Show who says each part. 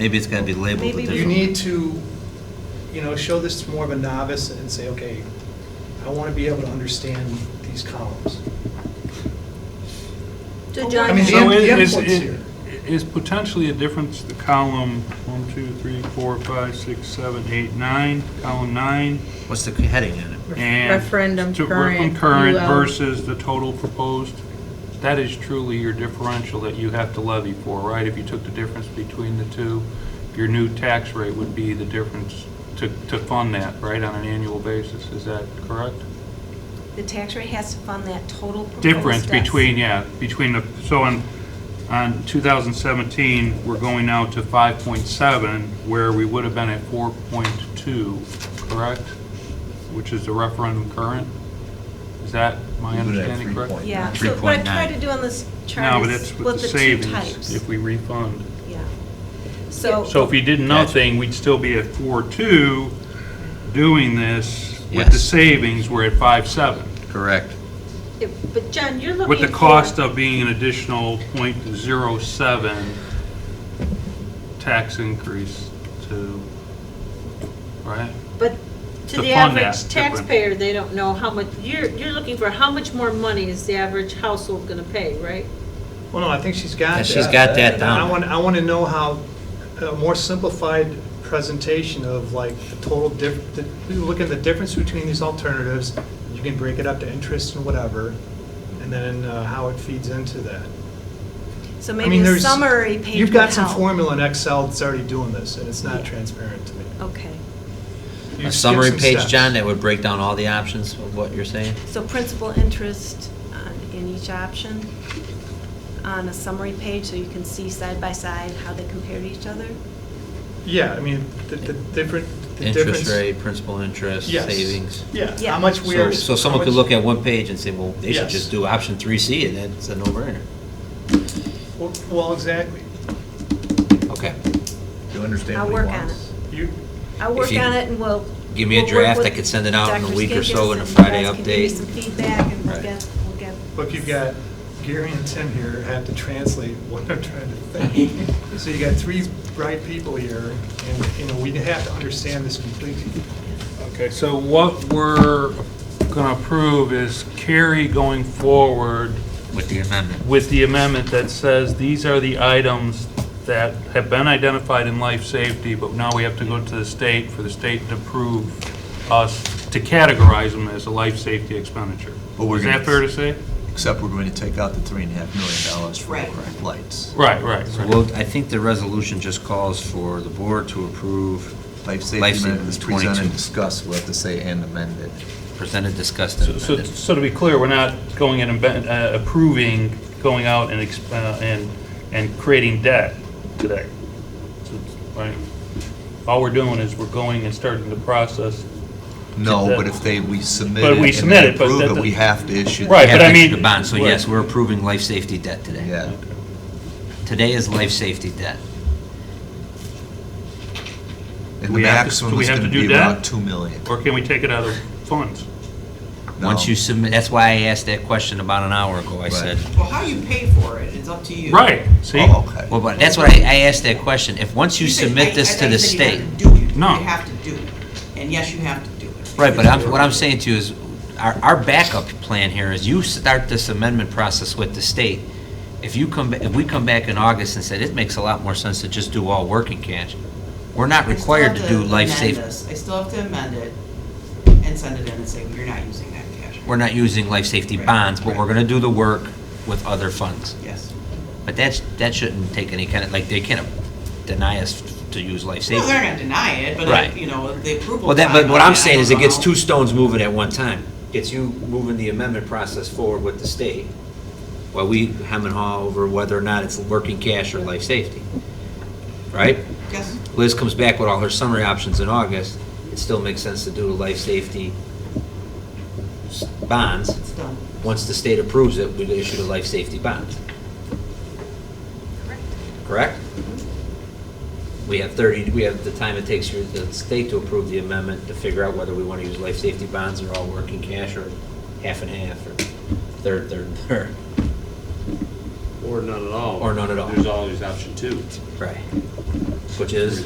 Speaker 1: Maybe it's gonna be labeled a
Speaker 2: Maybe we-
Speaker 1: different.
Speaker 3: You need to, you know, show this to more of a novice and say, okay, I want to be able to understand these columns.
Speaker 2: So
Speaker 3: I
Speaker 2: John,
Speaker 3: mean, the
Speaker 4: So
Speaker 3: end-
Speaker 4: is- is-
Speaker 3: endpoint's
Speaker 4: is-
Speaker 3: here.
Speaker 4: Is potentially a difference, the column, one, two, three, four, five, six, seven, eight, nine, column nine,
Speaker 1: What's the heading in it?
Speaker 4: and.
Speaker 5: Referendum
Speaker 4: to-
Speaker 5: current,
Speaker 4: Concurrent
Speaker 5: UL.
Speaker 4: versus the total proposed, that is truly your differential that you have to levy for, right? If you took the difference between the two, your new tax rate would be the difference to, to fund that, right, on an annual basis, is that correct?
Speaker 2: the tax rate has to fund that total. proposed
Speaker 4: difference
Speaker 2: debt.
Speaker 4: between, yeah, between the, so on, on 2017, we're going now to 5.7, where we would have been at 4.2, correct? Which is the referendum current? Is that my
Speaker 1: We would have
Speaker 4: understanding correct?
Speaker 1: 3.9.
Speaker 2: Yeah, so what I tried
Speaker 1: 3.9.
Speaker 2: to do on this
Speaker 4: No,
Speaker 2: chart
Speaker 4: but
Speaker 2: is
Speaker 4: that's with
Speaker 2: split
Speaker 4: the
Speaker 2: the two
Speaker 4: savings,
Speaker 2: types.
Speaker 4: if we refund.
Speaker 2: Yeah. So.
Speaker 4: So if you did nothing, we'd still be at 4.2 doing this. With the
Speaker 1: Yes.
Speaker 4: savings, we're at 5.7.
Speaker 1: Correct.
Speaker 2: If- But John, you're looking.
Speaker 4: With the
Speaker 2: for-
Speaker 4: cost of being an additional .07 tax increase to, right?
Speaker 6: But
Speaker 4: To
Speaker 6: to the
Speaker 4: fund
Speaker 6: average
Speaker 4: that different-
Speaker 6: taxpayer, they don't know how much, you're, you're looking for how much more money is the average household gonna pay, right?
Speaker 3: Well, no, I think she's got
Speaker 1: Yeah,
Speaker 3: that.
Speaker 1: she's got that down.
Speaker 3: I want, I want to know how, a more simplified presentation of like the total diff, the- we look at the difference between these alternatives, you can break it up to interest and whatever, and then uh, how it feeds into that.
Speaker 2: So
Speaker 3: I
Speaker 2: maybe
Speaker 3: mean,
Speaker 2: a
Speaker 3: there's-
Speaker 2: summary page
Speaker 3: You've
Speaker 2: would
Speaker 3: got some
Speaker 2: help.
Speaker 3: formula in Excel that's already doing this, and it's not
Speaker 2: Yeah.
Speaker 3: transparent to me.
Speaker 2: Okay,
Speaker 3: You
Speaker 1: A
Speaker 3: skip
Speaker 1: summary
Speaker 3: some
Speaker 1: page,
Speaker 3: steps.
Speaker 1: John, that would break down all the options of what you're saying?
Speaker 2: so principal interest on- in each option on a summary page, so you can see side by side how they compare to each other?
Speaker 3: Yeah, I mean, the, the different, the difference.
Speaker 1: Interest rate, principal interest,
Speaker 3: Yes.
Speaker 1: savings.
Speaker 3: Yeah,
Speaker 2: Yeah.
Speaker 3: how much we are.
Speaker 1: So- So someone could look at one page and say, well, they should
Speaker 3: Yes.
Speaker 1: just do option three C and then it's a no-brainer.
Speaker 3: Well- Well, exactly.
Speaker 1: Okay.
Speaker 7: You understand
Speaker 2: I'll
Speaker 7: what
Speaker 2: work
Speaker 7: he
Speaker 2: on
Speaker 7: wants?
Speaker 3: You,
Speaker 2: I'll work
Speaker 1: you
Speaker 2: on it and we'll.
Speaker 1: give me a
Speaker 2: we'll work
Speaker 1: draft, I
Speaker 2: with
Speaker 1: could send it out in a
Speaker 2: Dr.
Speaker 1: week or so in a
Speaker 2: Skinkis and you
Speaker 1: Friday
Speaker 2: guys can give me
Speaker 1: update.
Speaker 2: some feedback and we'll
Speaker 1: Right.
Speaker 2: get, we'll get.
Speaker 3: look, you've got Gary and Tim here have to translate what I'm trying to think. So you got three bright people here, and, you know, we have to understand this completely.
Speaker 4: Okay, so what we're going to approve is carry going forward
Speaker 1: With the amendment.
Speaker 4: with the amendment that says these are the items that have been identified in life safety, but now we have to go to the state for the state to approve us to categorize them as a life safety expenditure.
Speaker 7: But we're
Speaker 4: Is that
Speaker 7: gonna-
Speaker 4: fair to say?
Speaker 7: Except we're going to take out the three and a half million dollars for
Speaker 6: Right.
Speaker 7: overnight lights.
Speaker 4: Right, right.
Speaker 1: So
Speaker 4: right.
Speaker 1: we'll- I think the resolution just calls for the board to approve,
Speaker 7: Life safety
Speaker 1: Life
Speaker 7: amendment is
Speaker 1: saving is 22.
Speaker 7: presented, discussed, we'll have to say and amended.
Speaker 1: presented, discussed,
Speaker 4: So-
Speaker 1: and
Speaker 4: So,
Speaker 1: amended.
Speaker 4: so to be clear, we're not going in and ben- uh, approving, going out and, exp- uh, and, and creating debt today. So it's- Right? All we're doing is we're going and starting the process.
Speaker 7: No,
Speaker 4: that-
Speaker 7: but if they, we submit
Speaker 4: But
Speaker 7: it
Speaker 4: we
Speaker 7: and
Speaker 4: submit
Speaker 7: they
Speaker 4: it, but
Speaker 7: approve
Speaker 4: that-
Speaker 7: it, we have to issue.
Speaker 4: Right,
Speaker 1: Have
Speaker 4: but I
Speaker 1: to
Speaker 4: mean-
Speaker 1: issue the bond, so
Speaker 4: Right.
Speaker 1: yes, we're approving life safety debt today.
Speaker 7: Yeah.
Speaker 1: Today is life safety debt.
Speaker 7: And the
Speaker 4: We have to- so
Speaker 7: maximum
Speaker 4: we
Speaker 7: is
Speaker 4: have
Speaker 7: going
Speaker 4: to
Speaker 7: to be
Speaker 4: do that?
Speaker 7: about 2 million.
Speaker 4: Or can we take it out of funds?
Speaker 1: Once
Speaker 7: No.
Speaker 1: you submit, that's why I asked that question about an hour ago, I
Speaker 7: Right.
Speaker 1: said.
Speaker 8: Well, how you pay for it is up to you.
Speaker 4: Right, see?
Speaker 7: Oh, okay.
Speaker 1: Well, but that's what I, I asked that question. If, once you
Speaker 8: said- I-
Speaker 1: submit this
Speaker 8: I
Speaker 1: to the
Speaker 8: thought you said
Speaker 1: state.
Speaker 8: you have to do it.
Speaker 4: No.
Speaker 8: You have to do it. And yes, you have to do it.
Speaker 1: Right, but I'm, what I'm saying to you is, our, our backup plan here is you start this amendment process with the state. If you come, ba- if we come back in August and said, it makes a lot more sense to just do all working cash, we're not
Speaker 8: I still
Speaker 1: required to
Speaker 8: have
Speaker 1: do life
Speaker 8: amend
Speaker 1: safety.
Speaker 8: this. I still have to amend it and send it in and say, you're not using that cash.
Speaker 1: We're not using life safety
Speaker 8: Right,
Speaker 1: bonds, but we're
Speaker 8: right.
Speaker 1: gonna do the work with other funds.
Speaker 8: Yes.
Speaker 1: But that's, that shouldn't take any kind of, like, they can't deny us to use life
Speaker 8: No, they're
Speaker 1: safety.
Speaker 8: not denying it, but,
Speaker 1: Right.
Speaker 8: I- you know, the approval.
Speaker 1: Well, that, but what
Speaker 8: timeline,
Speaker 1: I'm
Speaker 8: I
Speaker 1: saying
Speaker 8: don't
Speaker 1: is it gets
Speaker 8: know.
Speaker 1: two stones moving at one time. Gets you moving the amendment process forward with the state, while we hem and haw over whether or not it's working cash or life safety. Right?
Speaker 8: Yes.
Speaker 1: Liz comes back with all her summary options in August, it still makes sense to do the life safety s- bonds.
Speaker 8: It's done.
Speaker 1: Once the state approves it, we issue the life safety bonds. Correct? We have 30, we have the time it takes for the state to approve the amendment to figure out whether we want to use life safety bonds or all working cash or half and half or third, third, and third.
Speaker 9: Or none at all.
Speaker 1: Or none at all.
Speaker 9: There's always option two.
Speaker 1: Right. which is